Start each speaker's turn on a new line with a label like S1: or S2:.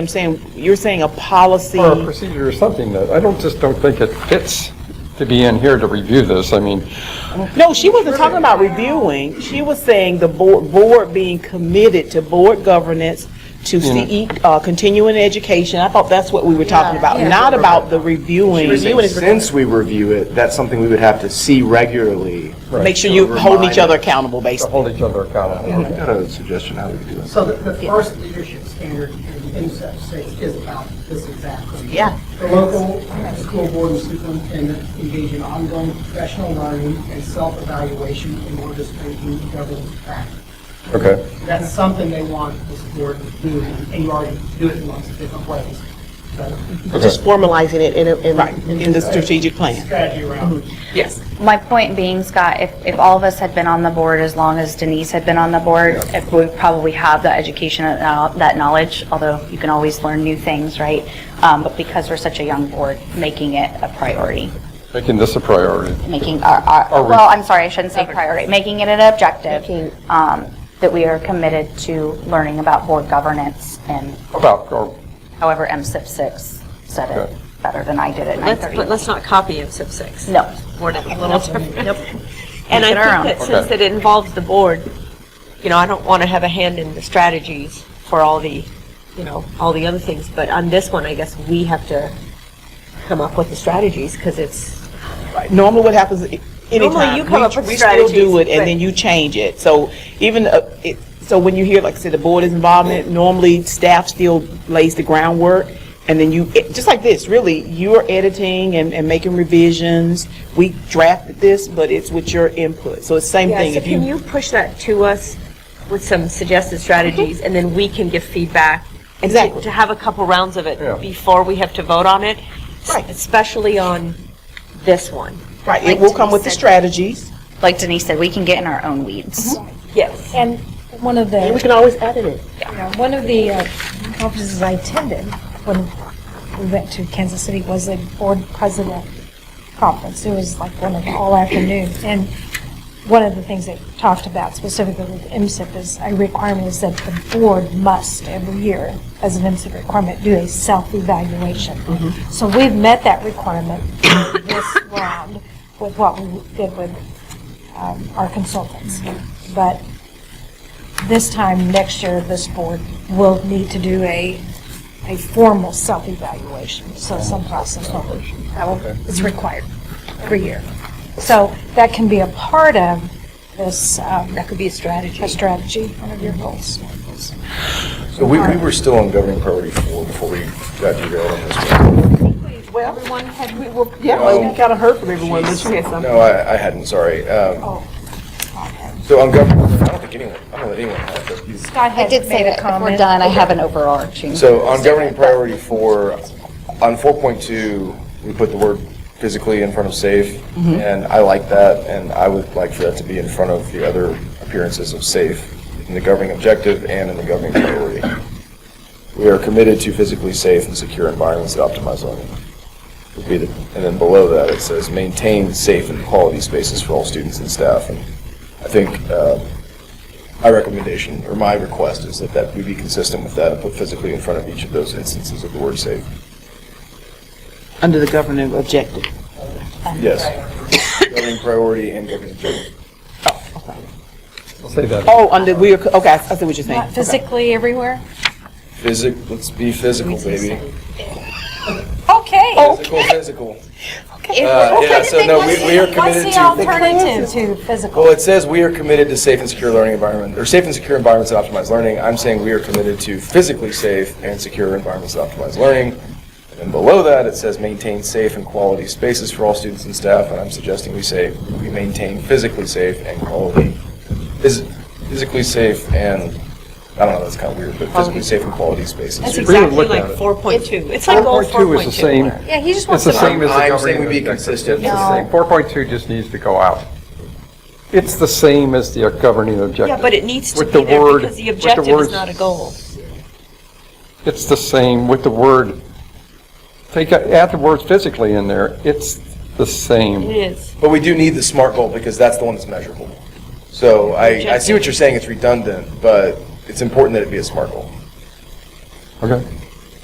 S1: I'm saying, you're saying a policy.
S2: Or a procedure or something, that I don't, just don't think it fits to be in here to review this, I mean,
S1: No, she wasn't talking about reviewing. She was saying the board, board being committed to board governance, to CE, uh, continuing education. I thought that's what we were talking about, not about the reviewing. Reviewing is-
S3: Since we review it, that's something we would have to see regularly.
S1: Make sure you hold each other accountable,
S2: to
S1: basically.
S2: hold each other accountable.
S3: I've got a suggestion how we could do it.
S4: So the, the first leadership standard in any such states is about this exactly.
S1: Yeah.
S4: The local school board and superintendent engage in ongoing professional learning and self-evaluation in order to strengthen governance practice.
S2: Okay,
S4: That's something they want this board to do, and you already do it in lots of different ways. But
S5: just formalizing it in a, in.
S1: Right, in the strategic plan.
S4: strategy around.
S1: Yes.
S6: My point being, Scott, if, if all of us had been on the board as long as Denise had been on the board, if we probably have that education, and uh, that knowledge, although you can always learn new things, right? Um, But because we're such a young board, making it a priority,
S2: making this a priority.
S6: making our, our,
S2: re-
S6: well, I'm sorry, I shouldn't say priority, making it an objective, um, that we are committed to learning about board governance and
S2: About, or,
S6: however MSIP 6 said
S2: Okay.
S6: it better than I did at
S7: Let's, but
S6: 9:30.
S7: let's not copy MSIP 6.
S6: No.
S7: We're not, a little different. And I
S6: Make it our
S7: think that
S2: own.
S7: since it
S2: Okay.
S7: involves the board, you know, I don't want to have a hand in the strategies for all the, you know, all the other things, but on this one, I guess we have to come up with the strategies, because it's,
S1: Normally what happens, i- anytime,
S7: you come up
S1: we
S7: with
S1: we still do
S7: strategies,
S1: it and then
S7: but-
S1: you change it. So even, uh, it- so when you hear, like I said, the board is involved in it, normally staff still lays the groundwork. And then you, it- just like this, really, you're editing and, and making revisions. We drafted this, but it's with your input. So it's the same
S7: yeah,
S1: thing.
S7: so
S1: If
S7: can you push that to us with some suggested strategies, and then we can give feedback? and to-
S1: Mm-hmm. Exactly.
S7: To have a couple rounds of
S2: Yeah.
S7: it before we have to vote on it? s-
S1: Right.
S7: Especially on this one.
S1: Right, it will come with the strategies.
S6: Like Denise said, we can get in our own
S7: Mm-hmm.
S6: weeds.
S7: Yes.
S8: And one of
S5: We
S8: the,
S5: can always edit it.
S8: you know, one of the uh, conferences I attended when we went to Kansas City was a board president conference. It was like one of the all afternoon. And one of the things they talked about specifically with MSIP is a requirement is that the board must every year, as an MSIP requirement, do a self-evaluation. So we've met that requirement in this round with what we did with um, our consultants. But this time next year, this board will need to do a, a formal self-evaluation, so some process will be- that
S9: Oh,
S8: will- it's required every year. So that can be a part of this, um,
S7: That could be a strategy.
S8: a strategy, one of your goals.
S9: So we, we were still on governing priority four before we got derailed on this one.
S1: Everyone had, we, well, yeah, well, we kind of heard from everyone, but you had some.
S9: No, I, I hadn't, sorry. Um, So on governing, I don't think anyone, I don't let anyone have this.
S8: Scott
S6: I
S8: had
S6: did say
S8: made a
S6: that if we're
S8: comment.
S6: done, I have an overarching.
S9: So on governing priority four, on four point two, we put the word physically in front of safe. And I like that, and I would like for that to be in front of the other appearances of safe in the governing objective and in the governing priority. We are committed to physically safe and secure environments that optimize learning. Would be the, and then below that, it says maintain safe and quality spaces for all students and staff. And I think, uh, my recommendation, or my request, is that that we be consistent with that and put physically in front of each of those instances of the word safe.
S1: Under the governing objective.
S9: Yes. Governing priority and governing objective.
S2: I'll say that.
S1: Oh, under, we are, c- okay, I I see what you're saying.
S8: Not physically everywhere?
S9: Physic, let's be physical, baby.
S8: Okay.
S9: Physical, physical. Uh, Yeah, so no, we we are
S8: What's
S9: committed
S8: the
S9: to,
S8: alternative to physical?
S9: well, it says we are committed to safe and secure learning environment, or safe and secure environments that optimize learning. I'm saying we are committed to physically safe and secure environments that optimize learning. And then below that, it says maintain safe and quality spaces for all students and staff, and I'm suggesting we say we maintain physically safe and quality, phys- physically safe and, I don't know, that's kind of weird, but physically safe and quality spaces.
S7: That's
S2: Really
S7: exactly
S2: look at
S7: like
S2: it.
S7: four point two. It's like goal
S2: 4.2 is the same,
S8: Yeah, he just
S2: it's
S8: wants
S2: the
S8: to.
S2: same as the
S9: I'm saying
S2: governing
S9: we be
S2: objective.
S9: consistent.
S2: It's the same. 4.2 just needs to go out. It's the same as the governing objective.
S7: Yeah, but it needs to
S2: With
S7: be
S2: the
S7: there
S2: word-
S7: because the
S2: with the
S7: objective is
S2: words-
S7: not a goal.
S2: It's the same with the word, take, add the word physically in there, it's the
S7: It
S2: same.
S7: is.
S9: But we do need the SMART goal because that's the one that's measurable. So I, I see what you're saying, it's redundant, but it's important that it be a SMART goal.
S2: Okay?